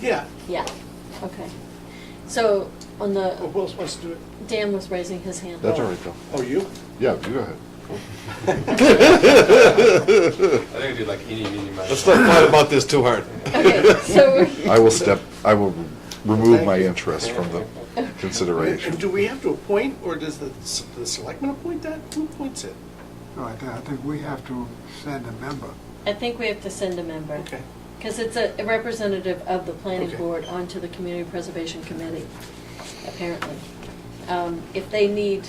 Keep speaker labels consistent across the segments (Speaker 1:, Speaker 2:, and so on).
Speaker 1: Yeah,
Speaker 2: Yeah, okay. So on
Speaker 1: oh,
Speaker 2: the,
Speaker 1: who else wants to do it?
Speaker 2: Dan was raising his hand.
Speaker 3: That's all right, Phil.
Speaker 1: Oh, you?
Speaker 3: Yeah, you go ahead.
Speaker 4: I think we did like eeny, meeny, miny.
Speaker 5: Let's not fight about this too hard.
Speaker 2: Okay, so,
Speaker 3: I will step, I will remove my interest from the consideration.
Speaker 1: And do we have to appoint, or does the, s- the selectman appoint that? Who appoints it?
Speaker 6: No, I think, I think we have to send a member.
Speaker 2: I think we have to send a member.
Speaker 1: Okay.
Speaker 2: Because it's a a representative of the planning
Speaker 1: Okay.
Speaker 2: board onto the community preservation committee, apparently. Um, If they need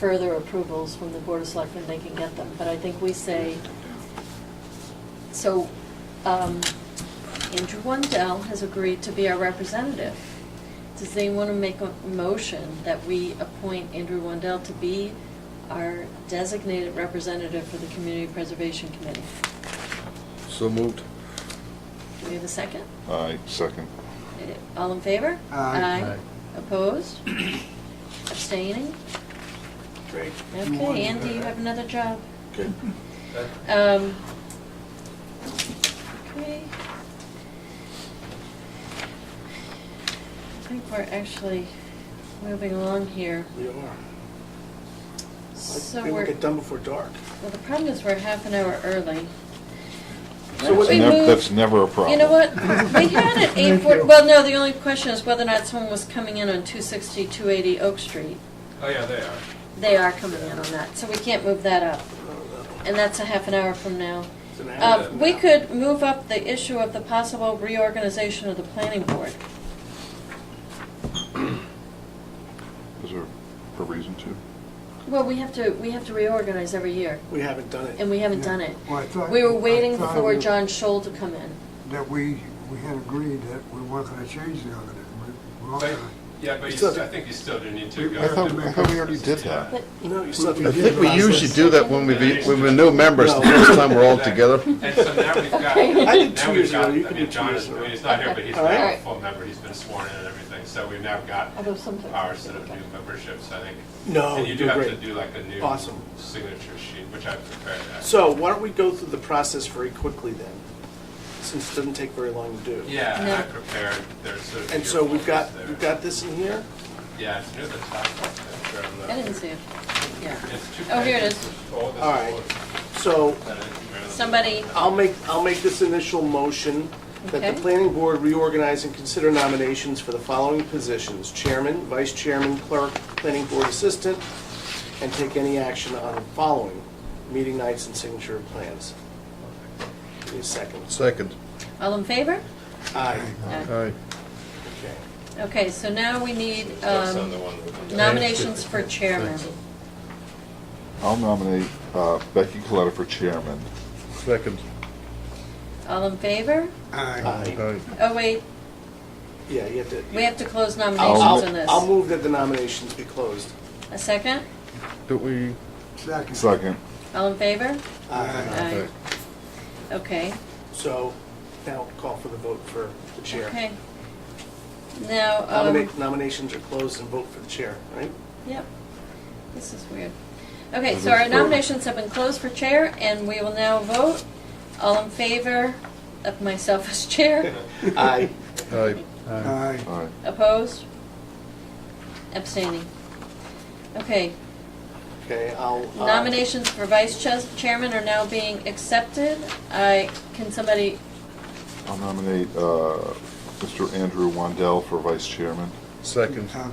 Speaker 2: further approvals from the board of selectmen, they can get them, but I think we say, so um, Andrew Wendell has agreed to be our representative. Does anyone want to make a motion that we appoint Andrew Wendell to be our designated representative for the community preservation committee?
Speaker 5: So moved.
Speaker 2: Do we have a second?
Speaker 3: I second.
Speaker 2: All in favor?
Speaker 6: Aye.
Speaker 2: Opposed? Abstaining?
Speaker 1: Great.
Speaker 6: want to
Speaker 2: Okay,
Speaker 6: do
Speaker 2: Andy,
Speaker 6: that.
Speaker 2: you have another job.
Speaker 1: Good.
Speaker 2: Um, Okay. I think we're actually moving along here.
Speaker 1: We are.
Speaker 2: So
Speaker 1: We will
Speaker 2: we're,
Speaker 1: get done before dark.
Speaker 2: well, the problem is we're half an hour early. Why
Speaker 1: So
Speaker 2: don't
Speaker 1: what-
Speaker 2: we
Speaker 3: Nev-
Speaker 2: move-
Speaker 3: That's never a problem.
Speaker 2: You know what, we had it eight
Speaker 6: Thank
Speaker 2: forty,
Speaker 6: you.
Speaker 2: well, no, the only question is whether or not someone was coming in on 260, 280 Oak Street.
Speaker 4: Oh, yeah, they are.
Speaker 2: They are coming in on that, so we can't move that up, and that's a half an hour from now.
Speaker 1: It's an hour
Speaker 2: Uh,
Speaker 1: from
Speaker 2: we
Speaker 1: now.
Speaker 2: could move up the issue of the possible reorganization of the planning board.
Speaker 3: Is there a reason to?
Speaker 2: Well, we have to, we have to reorganize every year,
Speaker 1: We haven't done it.
Speaker 2: and we haven't done it.
Speaker 6: Well, I thought-
Speaker 2: We were
Speaker 6: I
Speaker 2: waiting
Speaker 6: thought
Speaker 2: for
Speaker 6: we-
Speaker 2: John Scholl to come in.
Speaker 6: That we, we had agreed that we weren't gonna change the organization. We- we weren't
Speaker 4: But,
Speaker 6: gonna-
Speaker 4: yeah, but you,
Speaker 1: Still-
Speaker 4: st- I think you still do need to go.
Speaker 3: I thought-
Speaker 4: through
Speaker 3: I thought we already did
Speaker 4: yeah.
Speaker 3: that.
Speaker 2: But
Speaker 1: No, you still have to.
Speaker 5: I think we usually do that when we, be- when we're new members, the
Speaker 1: No.
Speaker 5: first time we're all together.
Speaker 4: And so now we've got.
Speaker 2: Okay. I
Speaker 1: did two
Speaker 4: now we've
Speaker 1: years ago,
Speaker 4: got-
Speaker 1: you
Speaker 4: I
Speaker 1: can
Speaker 4: mean,
Speaker 1: do two
Speaker 4: John
Speaker 1: years
Speaker 4: is-
Speaker 1: ago.
Speaker 4: I mean, he's not here, but he's
Speaker 1: All
Speaker 4: now a
Speaker 2: right.
Speaker 4: full member, he's been sworn in and everything, so we've now got
Speaker 2: Although sometimes
Speaker 4: our
Speaker 2: it's
Speaker 4: sort of new
Speaker 2: difficult.
Speaker 4: memberships, I think.
Speaker 1: No,
Speaker 4: And you do
Speaker 1: you're
Speaker 4: have to
Speaker 1: great.
Speaker 4: do like a new
Speaker 1: Awesome.
Speaker 4: signature sheet, which I've prepared. actually.
Speaker 1: So why don't we go through the process very quickly then, since it doesn't take very long to do.
Speaker 4: Yeah, and
Speaker 2: No.
Speaker 4: I prepared, there's sort of.
Speaker 1: And
Speaker 4: your
Speaker 1: so we've got,
Speaker 4: folders
Speaker 1: we've
Speaker 4: there.
Speaker 1: got this in here.
Speaker 4: Yeah, it's near the top. I'm sure on the-
Speaker 2: I didn't see it, yeah.
Speaker 4: It's two
Speaker 2: Oh, here it
Speaker 4: pages.
Speaker 2: is.
Speaker 4: Oh, this
Speaker 1: All right.
Speaker 4: folder.
Speaker 1: So
Speaker 2: Somebody,
Speaker 1: I'll make, I'll make this initial motion that the
Speaker 2: Okay.
Speaker 1: planning board reorganize and consider nominations for the following positions, chairman, vice chairman, clerk, planning board assistant, and take any action on the following, meeting nights and signature of plans. Give me a second.
Speaker 5: Second.
Speaker 2: all in favor?
Speaker 1: Aye, Uh-huh.
Speaker 5: Aye.
Speaker 1: okay.
Speaker 2: Okay, so now we need
Speaker 4: That's
Speaker 2: um,
Speaker 4: on the one that-
Speaker 2: nominations for chairman.
Speaker 3: I'll nominate uh, Becky Coletta for chairman.
Speaker 5: Second.
Speaker 2: All in favor?
Speaker 6: Aye.
Speaker 1: Aye.
Speaker 5: Aye.
Speaker 2: Oh, wait,
Speaker 1: Yeah, you have to.
Speaker 2: we have to close
Speaker 1: I'll-
Speaker 2: nominations
Speaker 1: I'll-
Speaker 2: on this.
Speaker 1: I'll move that the nominations be closed.
Speaker 2: A second?
Speaker 5: Do we?
Speaker 6: Second.
Speaker 3: Second.
Speaker 2: All in favor?
Speaker 1: Aye.
Speaker 2: Aye. Okay,
Speaker 1: So now call for the vote for the chair.
Speaker 2: okay. Now, um,
Speaker 1: Nominate- Nominations are closed and vote for the chair, right?
Speaker 2: yep, this is weird. Okay,
Speaker 3: This
Speaker 2: so our
Speaker 3: is weird.
Speaker 2: nominations have been closed for chair, and we will now vote. All in favor of myself as chair?
Speaker 1: Aye.
Speaker 5: Aye.
Speaker 6: Aye.
Speaker 3: All right.
Speaker 2: Opposed? Abstaining. Okay,
Speaker 1: Okay, I'll. uh,
Speaker 2: Nominations for vice chas- chairman are now being accepted. I, can somebody,
Speaker 3: I'll nominate uh, Mr. Andrew Wandel for vice chairman.
Speaker 5: Second.
Speaker 6: Uh,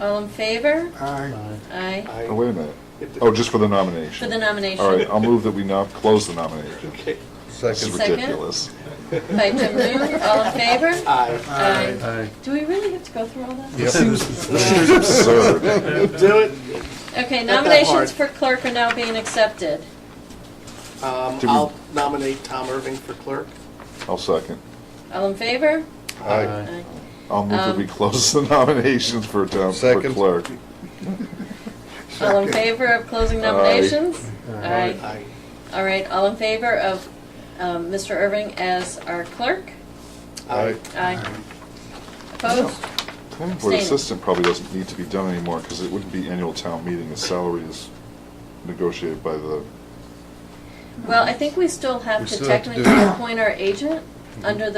Speaker 2: all in favor?
Speaker 6: Aye.
Speaker 2: Aye.
Speaker 1: I-
Speaker 3: Oh, wait a minute.
Speaker 1: if the-
Speaker 3: Oh, just for the
Speaker 2: For
Speaker 3: nomination.
Speaker 2: the nomination.
Speaker 3: All right, I'll move that we now close the nomination.
Speaker 1: Okay,
Speaker 3: This is
Speaker 5: Second.
Speaker 2: Second.
Speaker 3: ridiculous.
Speaker 2: By Jim Moon, all in favor?
Speaker 1: aye.
Speaker 2: Aye. Do we really have to go through all that?
Speaker 3: This is absurd.
Speaker 1: Do it.
Speaker 2: Okay,
Speaker 1: Not that
Speaker 2: nominations
Speaker 1: hard.
Speaker 2: for clerk are now being accepted.
Speaker 1: Um,
Speaker 3: Do we-
Speaker 1: I'll nominate Tom Irving for clerk.
Speaker 3: I'll second.
Speaker 2: All in favor?
Speaker 5: Aye.
Speaker 2: Aye.
Speaker 3: I'll move that we
Speaker 2: Um,
Speaker 3: close the nominations for town, for
Speaker 5: Second.
Speaker 3: clerk.
Speaker 2: All in favor of closing
Speaker 3: Aye.
Speaker 2: nominations? Aye.
Speaker 1: Aye.
Speaker 2: All right, all in favor of um, Mr. Irving as our clerk?
Speaker 5: Aye.
Speaker 2: Aye. Opposed?
Speaker 3: Planning board
Speaker 2: Abstaining.
Speaker 3: assistant probably doesn't need to be done anymore, because it wouldn't be annual town meeting, the salary is negotiated by the,
Speaker 2: Well, I think we still
Speaker 5: We
Speaker 2: have to
Speaker 5: still have to do
Speaker 2: technically appoint our agent. under the